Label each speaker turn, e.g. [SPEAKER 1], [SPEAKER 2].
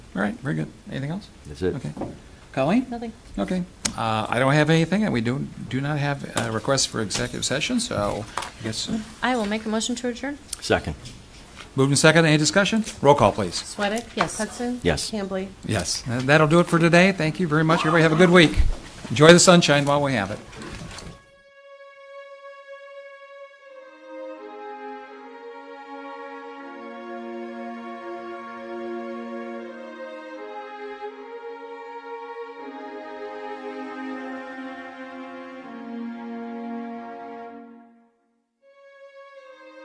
[SPEAKER 1] All right, very good. Anything else?
[SPEAKER 2] That's it.
[SPEAKER 1] Okay. Colleen?
[SPEAKER 3] Nothing.
[SPEAKER 1] Okay, uh, I don't have anything, and we do, do not have a request for executive session, so I guess,
[SPEAKER 3] I will make a motion to adjourn.
[SPEAKER 2] Second.
[SPEAKER 1] moving second, any discussion? Roll call, please.
[SPEAKER 4] Sweattick?
[SPEAKER 3] Yes.
[SPEAKER 4] Hudson?
[SPEAKER 2] Yes.
[SPEAKER 4] Hambley?
[SPEAKER 1] Yes, and that'll do it for today. Thank you very much. Everybody have a good week. Enjoy the sunshine while we have it.